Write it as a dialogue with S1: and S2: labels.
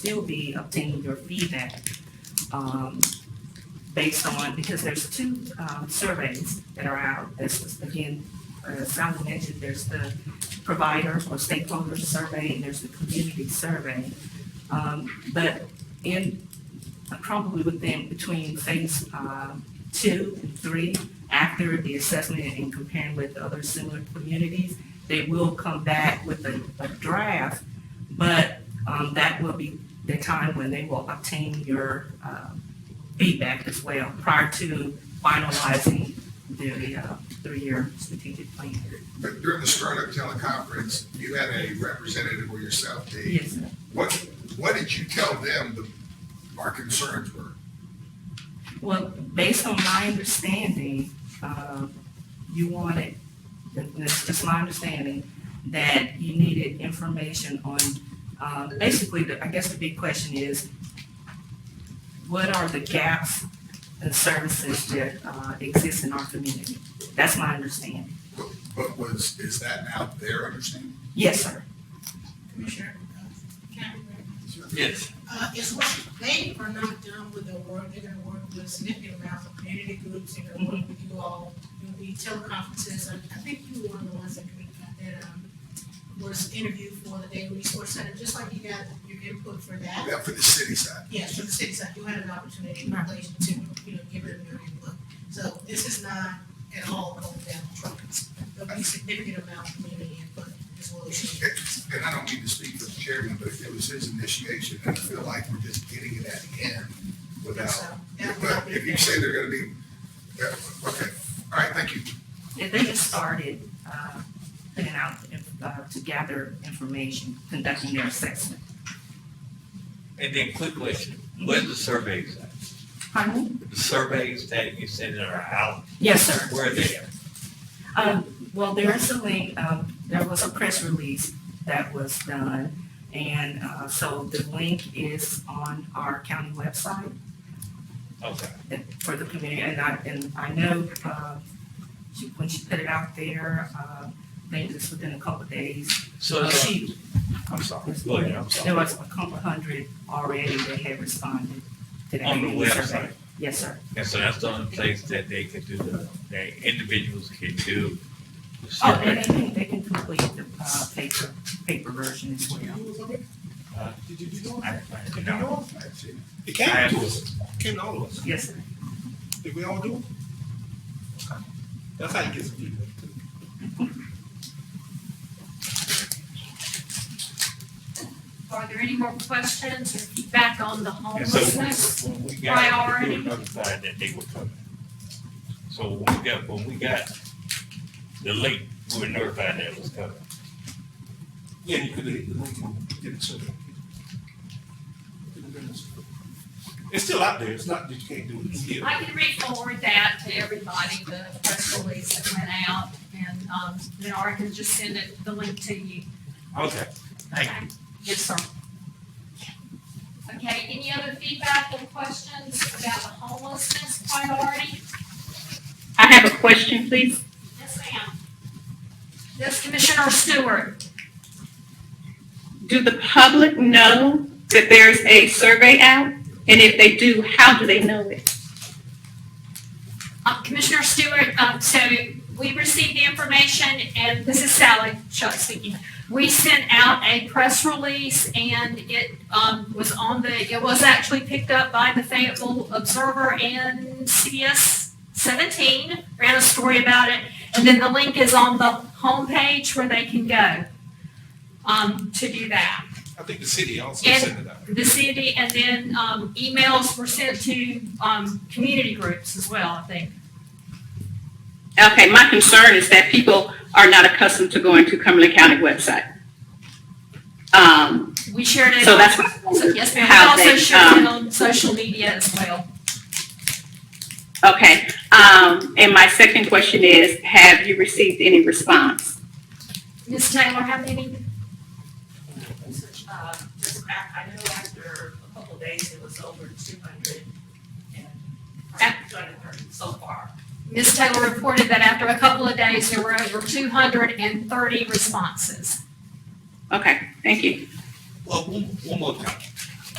S1: Sylvie obtain your feedback, um, based on, because there's two, um, surveys that are out. This, again, uh, Sally mentioned, there's the provider or stakeholder survey, and there's the community survey. Um, but in, probably within, between phase, um, two and three, after the assessment and comparing with other similar communities, they will come back with a, a draft, but, um, that will be the time when they will obtain your, uh, feedback as well, prior to finalizing the, uh, three-year strategic plan.
S2: But during the startup teleconference, you had a representative or yourself, Dave.
S1: Yes, sir.
S2: What, what did you tell them the, our concerns were?
S1: Well, based on my understanding, uh, you wanted, that's just my understanding, that you needed information on, uh, basically, the- I guess the big question is, what are the gaps in services that uh, exist in our community? That's my understanding.
S2: But- But was, is that now their understanding?
S1: Yes, sir.
S3: Commissioner, Captain,
S4: Yes,
S3: uh, it's what, they are not done with their work, they're gonna work with significant amounts of community groups, they're gonna work with you all, there'll be teleconferences, I, I think you were one of the ones that, commu- that, um, was interviewed for the Daily Resource Center, just like you got your input for that.
S2: Yeah, for the city side.
S3: Yes, for the city side, you had an opportunity in relation to, you know, give them your input. So this is not at all going down the truck, there'll be significant amount of community input as well as.
S2: And I don't mean to speak for the chairman, but it was his initiation, and I feel like we're just getting it at the end without.
S3: So, that would
S2: But
S3: not be
S2: if you
S3: fair.
S2: say they're gonna be, yeah, okay, all right, thank you.
S1: They they just started uh, putting out, uh, to gather information, conducting their assessment.
S4: and then quick question, where's the surveys at?
S1: Pardon?
S4: The surveys that you said that are out,
S1: Yes, sir.
S4: where are they at?
S1: Um, well, there is a link, um, there was a press release that was done. And, uh, so the link is on our county website
S4: Okay,
S1: for the community. And I, and I know, uh, she, when she put it out there, uh, I think it's within a couple of days.
S4: so,
S1: uh,
S4: it's on-
S1: She,
S4: I'm sorry, go ahead, I'm
S1: there
S4: sorry.
S1: was a couple hundred already that had responded to that.
S4: On the
S1: survey.
S4: website,
S1: Yes, sir.
S4: and so that's the only place that they can do the, that individuals can do the
S1: Oh, and they
S4: survey.
S1: can, they can complete the, uh, paper, paper version as well.
S5: Uh, Did you do
S4: I- I- you know,
S5: It
S4: I
S5: came
S4: have
S5: to
S4: to-
S5: us, came to all of us.
S1: Yes, sir.
S5: Did we all do it? That's how you get some people.
S6: Are there any more questions or feedback on the
S4: And so
S6: homelessness?
S4: when we got, we
S6: Priority.
S4: were notified that they were coming. So when we got, when we got the link, we were notified that it was coming.
S5: Yeah, you could have hit the link, you did it so. It's still out there, it's not that you can't do it, it's here.
S6: I can re-forward that to everybody, the press release that went out, and, um, then or I can just send it, the link to you.
S4: Okay, thank you.
S6: Yes, sir. Okay, any other feedback or questions about the homelessness priority?
S7: I have a question, please.
S6: Yes, ma'am. Yes, Commissioner Stewart.
S7: Do the public know that there's a survey out? And if they do, how do they know it?
S6: Uh, Commissioner Stewart, um, so we received the information, and this is Sally Chuck speaking. We sent out a press release, and it um, was on the, it was actually picked up by the Fayetteville Observer and CBS 17, ran a story about it, and then the link is on the homepage where they can go um, to do that
S5: I think the city also
S6: And-
S5: sent it out.
S6: the city, and then um, emails were sent to um, community groups as well, I think.
S7: Okay, my concern is that people are not accustomed to going to Cumberland County website. Um,
S6: We shared it.
S7: so that's what I
S6: So,
S7: wondered,
S6: Yes,
S7: how
S6: ma'am. We also
S7: they,
S6: shared it
S7: um,
S6: on social media as well.
S7: Okay, um, and my second question is, have you received any response?
S6: Ms. Taylor, how many?
S1: Uh, just, I, I know after a couple of days, it was over two hundred and, two hundred and thirty so far.
S6: Ms. Taylor reported that after a couple of days, there were over 230 responses.
S7: Okay, thank you.
S5: Well, one, one more time.